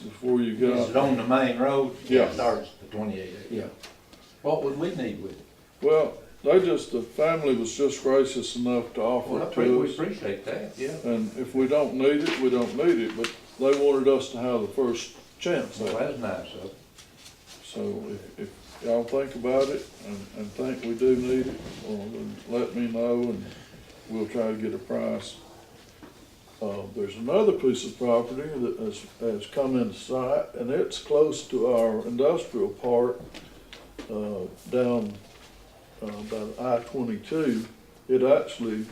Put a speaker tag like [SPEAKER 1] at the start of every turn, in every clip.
[SPEAKER 1] before you
[SPEAKER 2] Is it
[SPEAKER 1] got,
[SPEAKER 2] on the main road?
[SPEAKER 1] Yeah.
[SPEAKER 2] It Starts at twenty-eight.
[SPEAKER 3] Yeah.
[SPEAKER 2] What would we need with it?
[SPEAKER 1] well, they just, the family was just gracious enough to offer
[SPEAKER 2] Well, I
[SPEAKER 1] it
[SPEAKER 2] pre-
[SPEAKER 1] to
[SPEAKER 2] we
[SPEAKER 1] us.
[SPEAKER 2] appreciate that, yeah.
[SPEAKER 1] And if we don't need it, we don't need it, but they wanted us to have the first chance
[SPEAKER 2] Well,
[SPEAKER 1] at it.
[SPEAKER 2] that's nice of them.
[SPEAKER 1] So if, if y'all think about it and, and think we do need it, well, then let me know and we'll try to get a price. Uh, there's another piece of property that has, has come into sight and it's close to our industrial park, uh, down, uh, by I twenty-two. It actually,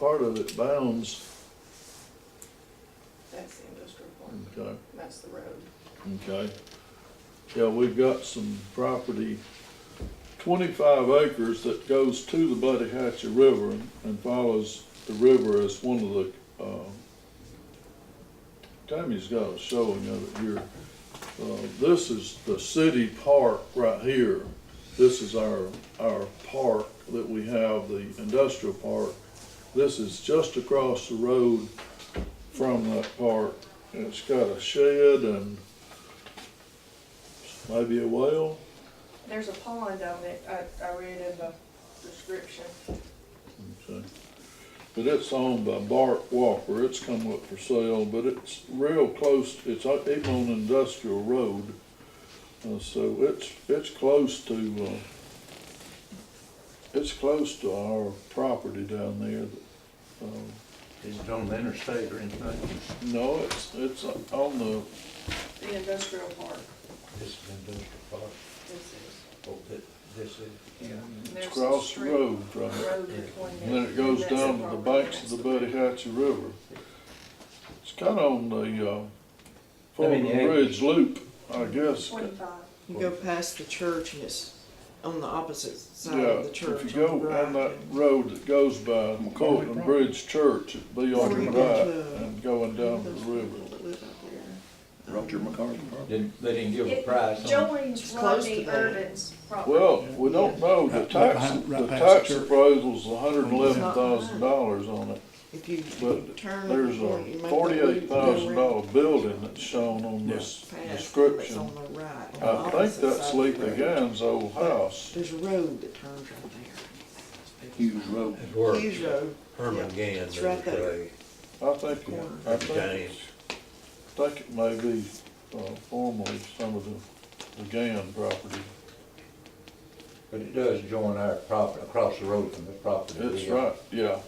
[SPEAKER 1] part of it bounds,
[SPEAKER 4] That's the industrial park,
[SPEAKER 1] okay,
[SPEAKER 4] that's the road.
[SPEAKER 1] Okay. Yeah, we've got some property, twenty-five acres that goes to the Buddy Hatcher River and- and follows the river as one of the, um, Tammy's got a showing of it here. Uh, this is the city park right here. This is our, our park that we have, the industrial park. This is just across the road from that park. And It's got a shed and maybe a well.
[SPEAKER 4] There's a pond on it, I, I read in the description.
[SPEAKER 1] Okay. But it's owned by Bart Walker. It's come up for sale, but it's real close. It's o- even on Industrial Road. Uh, so it's, it's close to, uh, it's close to our property down there. Um,
[SPEAKER 2] Is it on the interstate or anything?
[SPEAKER 1] No, it's, it's on the,
[SPEAKER 4] The industrial park,
[SPEAKER 2] This is industrial park,
[SPEAKER 4] this is.
[SPEAKER 2] oh, thi- this is.
[SPEAKER 4] and
[SPEAKER 1] Mm. it's
[SPEAKER 4] there's a
[SPEAKER 1] across the
[SPEAKER 4] street
[SPEAKER 1] road from it.
[SPEAKER 4] Road between
[SPEAKER 1] And then it
[SPEAKER 4] that-
[SPEAKER 1] goes
[SPEAKER 4] that's a
[SPEAKER 1] down to the
[SPEAKER 4] property,
[SPEAKER 1] banks of
[SPEAKER 4] that's
[SPEAKER 1] the Buddy Hatchie River. It's kinda on the, uh,
[SPEAKER 2] I mean,
[SPEAKER 1] Fulton
[SPEAKER 2] the-
[SPEAKER 1] Bridge Loop, I guess.
[SPEAKER 4] Twenty-five,
[SPEAKER 5] You go past the church and it's on the opposite side
[SPEAKER 1] Yeah,
[SPEAKER 5] of the
[SPEAKER 1] if
[SPEAKER 5] church.
[SPEAKER 1] you go
[SPEAKER 5] on the right.
[SPEAKER 1] down that road that goes by Fulton Bridge Church, it'd be on
[SPEAKER 5] Before
[SPEAKER 1] the
[SPEAKER 5] you get to
[SPEAKER 1] right and going down to
[SPEAKER 5] Those
[SPEAKER 1] the
[SPEAKER 5] people
[SPEAKER 1] river.
[SPEAKER 5] that live out there. um,
[SPEAKER 6] Roger McCarthy.
[SPEAKER 2] Didn't, they didn't give a
[SPEAKER 4] It-
[SPEAKER 2] price on it?
[SPEAKER 4] Jolene's
[SPEAKER 5] It's close to
[SPEAKER 4] Rodney
[SPEAKER 5] that.
[SPEAKER 4] Irvin's property.
[SPEAKER 1] Well, we don't know, the
[SPEAKER 6] Right
[SPEAKER 1] tax,
[SPEAKER 6] behind- right
[SPEAKER 1] the
[SPEAKER 6] past the
[SPEAKER 1] tax
[SPEAKER 6] church.
[SPEAKER 1] appraisal's hundred and eleven thousand dollars on it.
[SPEAKER 5] If you
[SPEAKER 1] But
[SPEAKER 5] turn.
[SPEAKER 1] There's
[SPEAKER 5] before you make
[SPEAKER 1] a
[SPEAKER 5] that
[SPEAKER 1] forty-eight thousand dollar
[SPEAKER 5] loop,
[SPEAKER 1] building that's shown on this
[SPEAKER 5] go around past, It's
[SPEAKER 1] description.
[SPEAKER 5] on the right. on the
[SPEAKER 1] I think
[SPEAKER 5] opposite
[SPEAKER 1] that's
[SPEAKER 5] side of the
[SPEAKER 1] Sleepy
[SPEAKER 5] road.
[SPEAKER 1] Guy's old house.
[SPEAKER 5] There's a road that turns right there.
[SPEAKER 6] Hughes Road.
[SPEAKER 7] It's where
[SPEAKER 5] Hughes Road.
[SPEAKER 7] Herman
[SPEAKER 5] yeah,
[SPEAKER 7] Gans
[SPEAKER 5] it's
[SPEAKER 7] and
[SPEAKER 5] right there.
[SPEAKER 7] Clay,
[SPEAKER 1] I think, it- I think,
[SPEAKER 7] James.
[SPEAKER 1] think it may be uh, formerly some of the, the Gann property.
[SPEAKER 2] But it does join our property, across the road from the property. we
[SPEAKER 1] It's
[SPEAKER 2] have.
[SPEAKER 1] right, yeah.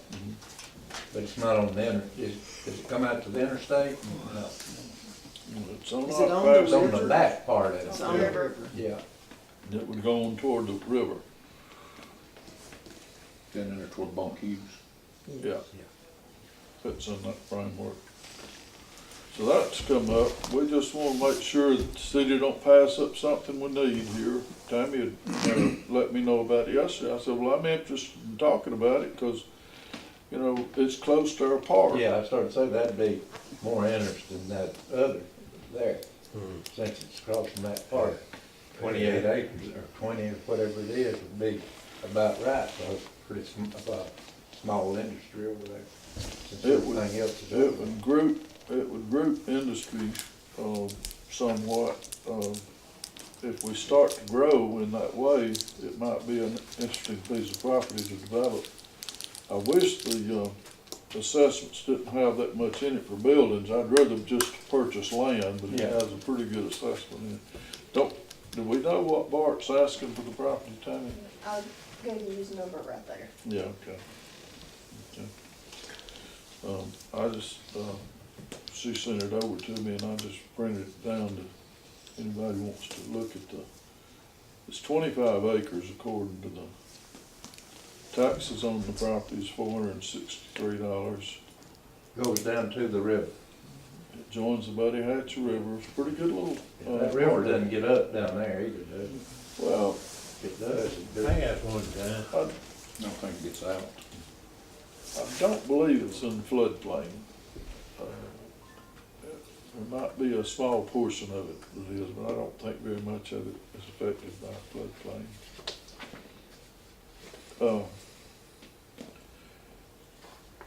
[SPEAKER 2] But it's not on the inter, is, does it come out to the interstate? No,
[SPEAKER 1] It's on
[SPEAKER 5] Is it
[SPEAKER 1] our
[SPEAKER 5] on the
[SPEAKER 1] back,
[SPEAKER 2] it's on the
[SPEAKER 5] Richard.
[SPEAKER 2] back part of it.
[SPEAKER 5] It's on the
[SPEAKER 2] yeah.
[SPEAKER 5] river.
[SPEAKER 2] Yeah,
[SPEAKER 1] that would go on toward the river,
[SPEAKER 6] Down in there toward Bonk Hughes.
[SPEAKER 1] yeah. It's in that framework. So that's come up. We just wanna make sure that the city don't pass up something we need here. Tammy had, uh, let me know about it yesterday. I said, well, I'm interested in talking about it, cause, you know, it's close to our park.
[SPEAKER 2] yeah, I started saying that'd be more interesting than that other there, since it's crossing that part. Twenty-eight acres or twenty or whatever it is would be about right for a pretty sm- about small industry over there. Since
[SPEAKER 1] It would-
[SPEAKER 2] everything else is
[SPEAKER 1] It
[SPEAKER 2] open.
[SPEAKER 1] would group, it would group industry, um, somewhat, um, if we start to grow in that way, it might be an interesting piece of property to develop. I wish the, uh, assessments didn't have that much in it for buildings, I'd rather just purchase land, but it
[SPEAKER 2] Yeah.
[SPEAKER 1] has a pretty good assessment in it. Don't, do we know what Bart's asking for the property, Tammy?
[SPEAKER 4] I gave you his number right there.
[SPEAKER 1] Yeah, okay. Okay. Um, I just, um, she sent it over to me and I just printed it down to, anybody wants to look at the, it's twenty-five acres according to the taxes on the property is four hundred and sixty-three dollars.
[SPEAKER 2] Goes down to the river.
[SPEAKER 1] It joins the Buddy Hatch River, it's a pretty good little. uh,
[SPEAKER 2] That river doesn't get up down there either, does it?
[SPEAKER 1] Well,
[SPEAKER 2] It does, it does.
[SPEAKER 7] I asked one time,
[SPEAKER 1] I,
[SPEAKER 6] I don't think it gets out.
[SPEAKER 1] I don't believe it's in floodplain. Uh, There might be a small portion of it that is, but I don't think very much of it is affected by floodplain. Uh,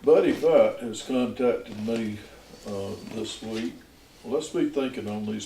[SPEAKER 1] Buddy Fight has contacted me, uh, this week. Let's be thinking on these